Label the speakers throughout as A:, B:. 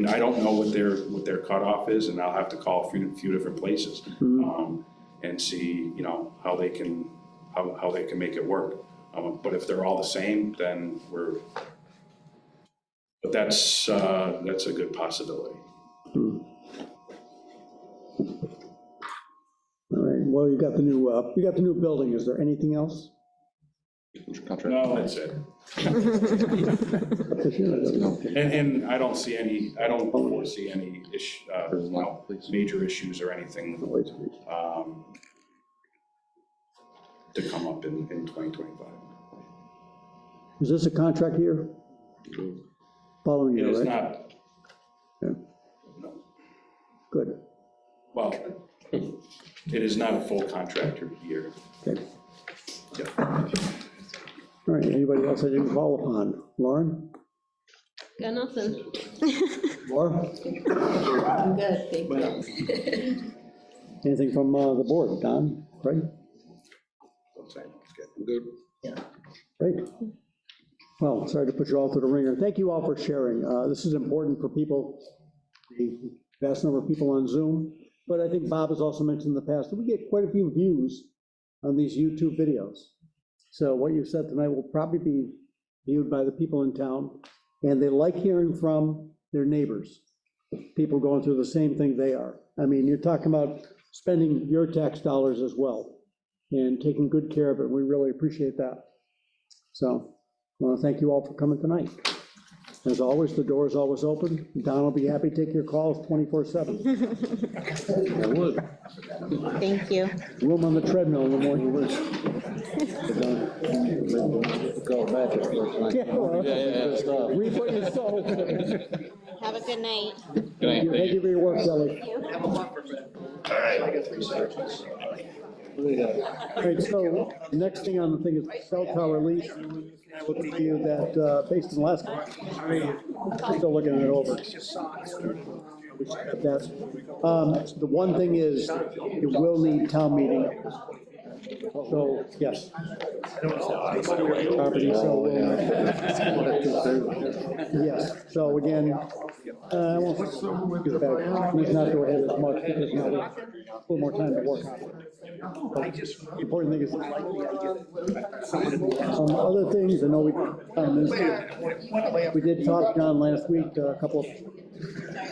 A: And I don't know what their, what their cutoff is, and I'll have to call a few, few different places, um, and see, you know, how they can, how, how they can make it work. Um, but if they're all the same, then we're, but that's, uh, that's a good possibility.
B: All right, well, you got the new, uh, you got the new building, is there anything else?
A: No, that's it. And, and I don't see any, I don't foresee any ish, uh, you know, major issues or anything, um, to come up in, in twenty twenty-five.
B: Is this a contract year? Following
A: It is
B: year, right?
A: not,
B: Yeah,
A: no,
B: Good,
A: well, it is not a full contractor year.
B: okay.
A: Yeah.
B: All right, anybody else I didn't call upon? Lauren?
C: Got nothing.
B: Laura?
C: I'm good, thank you.
B: Anything from uh, the board? Don, Craig?
D: Good.
B: Great. Well, sorry to put you all through the ringer. Thank you all for sharing. Uh, This is important for people, the vast number of people on Zoom. But I think Bob has also mentioned in the past that we get quite a few views on these YouTube videos. So what you said tonight will probably be viewed by the people in town, and they like hearing from their neighbors, people going through the same thing they are. I mean, you're talking about spending your tax dollars as well and taking good care of it. We really appreciate that. So I want to thank you all for coming tonight. As always, the door is always open. Don will be happy to take your calls 24/7. I would.
C: Thank you.
B: Room on the treadmill in the morning.
D: Go back. if you like.
B: Yeah, well, Reap what you sow.
C: Have a good night.
D: Good night, thank
B: Thank you for your work, Ellie. All right, so next thing on the thing is cell tower lease. I will give you that uh, based in last, still looking it over. We should have that. Um, The one thing is, it will need town meeting. So, yes. Property, so, uh, Yes, so again, uh, I won't get back, we not go ahead as much, because now we have a little more time to work on it. The Important thing is, um, other things, I know we, um, this- we did talk, John, last week, uh, a couple of,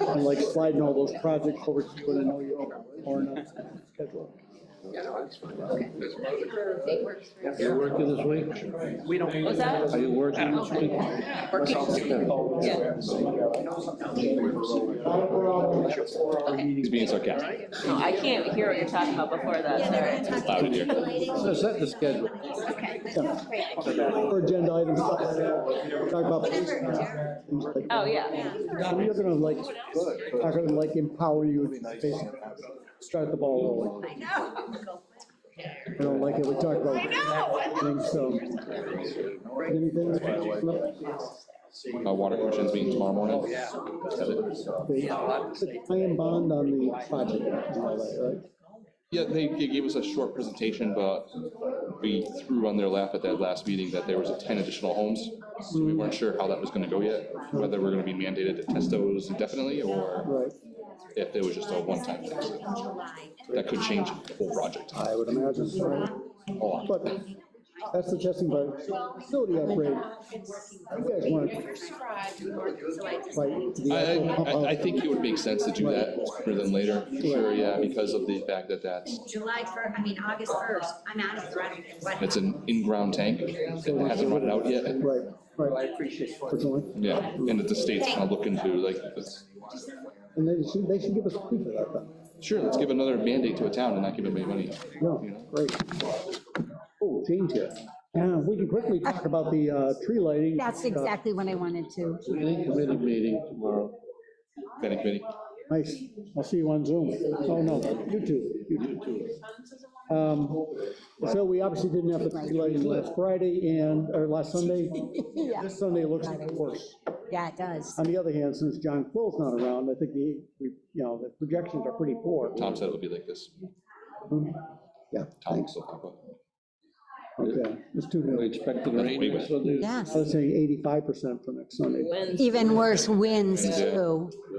B: on, like sliding all those projects over to you, and I know you're on a schedule.
D: You working this week?
E: What's that?
D: Are you working this week? He's being sarcastic.
E: No, Oh, I can't hear what you're talking about before that, sorry.
D: Loud in here. So set the schedule.
B: For agenda items, stuff like that. talk about. police and that, things like that.
E: Oh, yeah.
B: We are gonna like, are gonna like empower you to basically start the ball rolling. I don't like it, we talked about. things, so. Anything?
D: Uh, water questions meeting tomorrow morning.
B: The Plan bond on the project. and all that, right?
D: Yeah, they, they gave us a short presentation, but we threw on their lap at that last meeting that there was ten additional homes. So we weren't sure how that was gonna go yet, whether we're gonna be mandated to test those indefinitely or
B: Right,
D: if it was just a one-time thing. That could change the whole project
B: I would imagine, so.
D: a lot.
B: but that's the testing part, facility upgrade. You guys want to fight the
D: I,
B: actual
D: I-
B: pump
D: I, I
B: out.
D: think it would make sense to do that sooner than later, sure, yeah, because of the fact that that's,
F: July first, I mean, August first, I'm out of threat.
D: it's an in-ground tank. It hasn't run out yet,
B: Right, right. I appreciate it.
D: yeah, and that the state's kind of looking to, like, let's-
B: And they should, they should give us a fee for that, though.
D: sure, let's give another mandate to a town and not give anybody money. you know?
B: No, great. Oh, Jane's here. Yeah, we can quickly talk about the uh, tree lighting.
F: That's
B: Uh,
F: exactly what I wanted to.
G: Planning committee meeting tomorrow.
D: Planning committee.
B: Nice. I'll see you on Zoom. Oh, no, YouTube. Um, So we obviously didn't have the tree lighting last Friday and, or last Sunday.
F: Yeah.
B: This Sunday looks worse.
F: Yeah, it does.
B: On the other hand, since John Quill's not around, I think the, we- you know, the projections are pretty poor.
D: Tom said it would be like this.
B: Yeah,
D: Tom Sokapa.
B: okay. It's too
G: We
B: new.
G: expect the rain
D: Wait, wait.
G: next Sunday.
F: Yes.
B: I was saying 85% for next Sunday.
E: When's
F: Even worse winds
D: Yeah.
F: too.